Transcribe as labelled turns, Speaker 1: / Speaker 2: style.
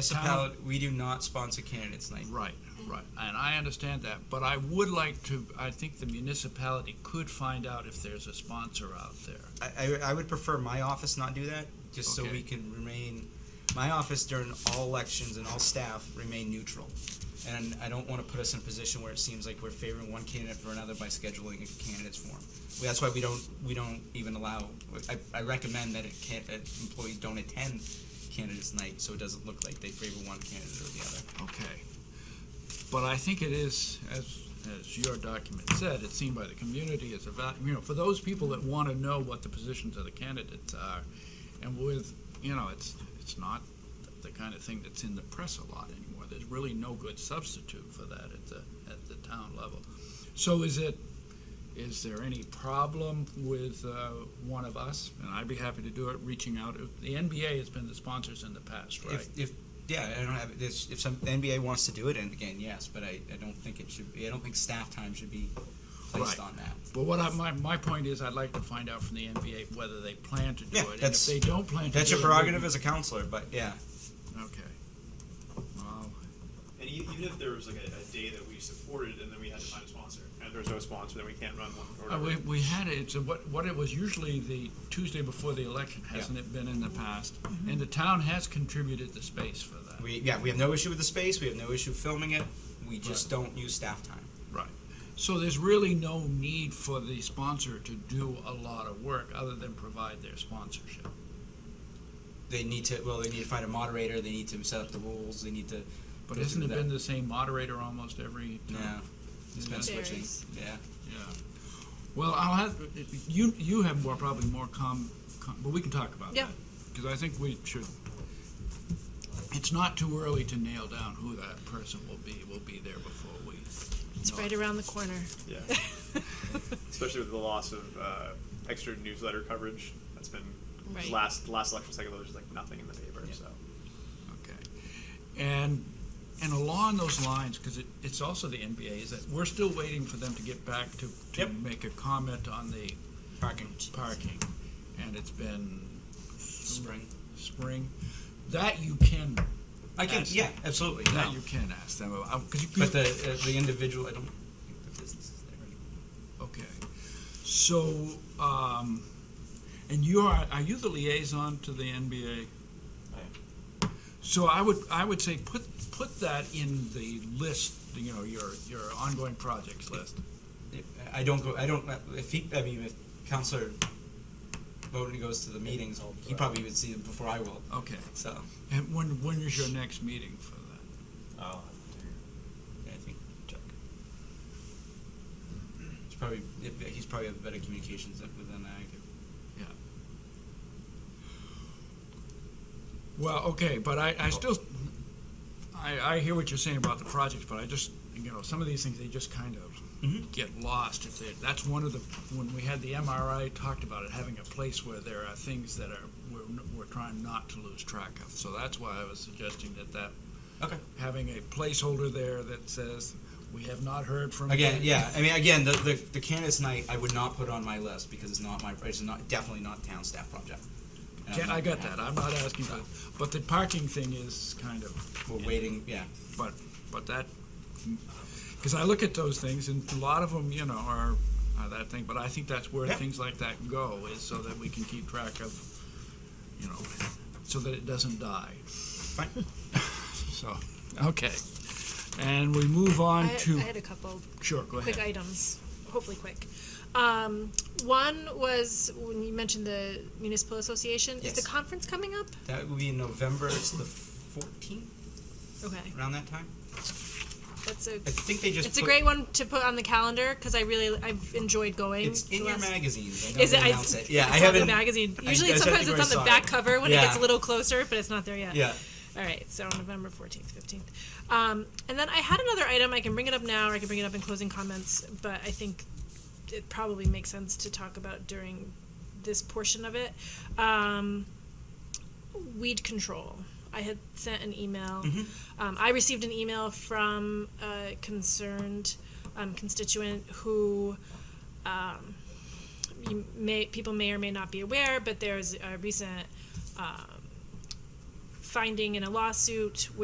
Speaker 1: Municipality, we do not sponsor candidates night.
Speaker 2: Right, right, and I understand that, but I would like to, I think the municipality could find out if there's a sponsor out there.
Speaker 1: I, I, I would prefer my office not do that, just so
Speaker 2: Okay.
Speaker 1: we can remain, my office during all elections and all staff remain neutral. And I don't wanna put us in a position where it seems like we're favoring one candidate for another by scheduling a candidates forum. That's why we don't, we don't even allow, I, I recommend that it can't, that employees don't attend candidates night, so it doesn't look like they favor one candidate or the other.
Speaker 2: Okay. But I think it is, as, as your document said, it's seen by the community as a, val- you know, for those people that want to know what the positions of the candidates are, and with, you know, it's, it's not the kind of thing that's in the press a lot anymore. There's really no good substitute for that at the, at the town level. So is it, is there any problem with uh, one of us? And I'd be happy to do it, reaching out. The NBA has been the sponsors in the past, right?
Speaker 1: If, if, yeah, I don't have, this, if some, the NBA wants to do it, and again, yes, but I, I don't think it should, be I don't think staff time should be placed
Speaker 2: Right.
Speaker 1: on that.
Speaker 2: But what I, my, my point is, I'd like to find out from the NBA whether they plan to do
Speaker 1: Yeah,
Speaker 2: it. And if
Speaker 1: that's-
Speaker 2: they don't plan to do it.
Speaker 1: That's your prerogative as a counselor, but yeah,
Speaker 2: Okay. Well,
Speaker 3: And e- even if there was like a, a day that we supported and then we had to find a sponsor, and if there's no sponsor, then we can't run one or
Speaker 2: uh,
Speaker 3: whatever.
Speaker 2: we, we had it, it's a- what, what it was usually the Tuesday before the election, hasn't it been in the past?
Speaker 1: Mm-hmm.
Speaker 2: And the town has contributed the space for that.
Speaker 1: we, yeah, we have no issue with the space, we have no issue filming it, we just don't use staff time.
Speaker 2: Right. So there's really no need for the sponsor to do a lot of work other than provide their sponsorship.
Speaker 1: They need to, well, they need to find a moderator, they need to set up the rules, they need to.
Speaker 2: But
Speaker 1: go
Speaker 2: hasn't
Speaker 1: through
Speaker 2: it been
Speaker 1: that.
Speaker 2: the same moderator almost every
Speaker 1: No,
Speaker 2: time?
Speaker 1: it's been switching,
Speaker 4: Varies.
Speaker 1: yeah.
Speaker 2: Yeah. Well, I'll have, you, you have more, probably more com, com- but we can talk about
Speaker 4: Yeah.
Speaker 2: that. Because I think we should, it's not too early to nail down who that person will be. We'll be there before we.
Speaker 4: It's
Speaker 2: know
Speaker 4: right
Speaker 2: it.
Speaker 4: around the corner.
Speaker 3: Yeah. Especially with the loss of uh, extra newsletter coverage, that's been
Speaker 4: Right.
Speaker 3: last last election cycle. There was like nothing in the paper, so
Speaker 2: Okay. And, and along those lines, because it, it's also the NBA, is that we're still waiting for them to get back to, to
Speaker 1: Yep.
Speaker 2: make a comment on the
Speaker 1: Parking,
Speaker 2: parking. And it's been
Speaker 1: spring.
Speaker 2: spring. That you can,
Speaker 1: I can,
Speaker 2: Yes.
Speaker 1: yeah, absolutely,
Speaker 2: that
Speaker 1: no.
Speaker 2: you can ask them about, because you.
Speaker 1: But the, uh, the individual, I don't think the business is there anymore.
Speaker 2: Okay. So, um, and you are, are you the liaison to the NBA?
Speaker 3: I am.
Speaker 2: So I would, I would say put, put that in the list, you know, your, your ongoing projects list.
Speaker 1: I don't go, I don't, if he, I mean, if Counselor Bowden goes to the meetings, he probably would see them before I will,
Speaker 2: Okay.
Speaker 1: so,
Speaker 2: And when, when is your next meeting for that?
Speaker 5: I'll have
Speaker 1: I think, check. He's probably, he's probably have better communications than than I do.
Speaker 2: Yeah. Well, okay, but I, I still, I, I hear what you're saying about the projects, but I just, you know, some of these things, they just kind of,
Speaker 1: Mm-hmm.
Speaker 2: get lost if they, that's one of the, when we had the MRI, talked about it, having a place where there are things that are, we're, we're trying not to lose track of. So that's why I was suggesting that that,
Speaker 1: Okay.
Speaker 2: having a placeholder there that says, we have not heard from.
Speaker 1: Again, yeah, I mean, again, the, the, the candidates night, I would not put on my list, because it's not my, it's not, definitely not town staff project. And I'm
Speaker 2: Can-
Speaker 1: not
Speaker 2: I got
Speaker 1: gonna
Speaker 2: that,
Speaker 1: have-
Speaker 2: I'm not asking for, but the parking thing is kind of,
Speaker 1: We're waiting, yeah,
Speaker 2: but, but that, because I look at those things and a lot of them, you know, are, are that thing, but I think that's where
Speaker 1: Yeah.
Speaker 2: things like that go, is so that we can keep track of, you know, so that it doesn't die.
Speaker 1: fine.
Speaker 2: So, okay. And we move on
Speaker 4: I,
Speaker 2: to,
Speaker 4: I had a couple
Speaker 2: sure, go
Speaker 4: quick
Speaker 2: ahead.
Speaker 4: items, hopefully quick. Um, one was when you mentioned the municipal association. Is the
Speaker 1: Yes.
Speaker 4: conference coming up?
Speaker 1: That would be in November, it's the fourteenth,
Speaker 4: Okay,
Speaker 1: around that time?
Speaker 4: that's a.
Speaker 1: I think they just
Speaker 4: It's a
Speaker 1: put-
Speaker 4: great one to put on the calendar because I really I've enjoyed going.
Speaker 1: It's in
Speaker 4: the
Speaker 1: your
Speaker 4: last-
Speaker 1: magazines. I know
Speaker 4: Is
Speaker 1: they
Speaker 4: it? I-
Speaker 1: announce it. Yeah,
Speaker 4: it's
Speaker 1: I
Speaker 4: on the
Speaker 1: haven't.
Speaker 4: magazine.
Speaker 1: I-
Speaker 4: Usually,
Speaker 1: I said I
Speaker 4: sometimes
Speaker 1: think
Speaker 4: it's on
Speaker 1: I saw
Speaker 4: the back
Speaker 1: it.
Speaker 4: cover when it
Speaker 1: Yeah.
Speaker 4: gets a little closer, but it's not there yet.
Speaker 1: Yeah.
Speaker 4: All right, so November 14th, 15th. Um, and then I had another item. I can bring it up now or I can bring it up in closing comments, but I think it probably makes sense to talk about during this portion of it. Um, weed control. I had sent an email. Um, I received an email from a concerned um, constituent who um, you may, people may or may not be aware, but there's a recent um, finding in a lawsuit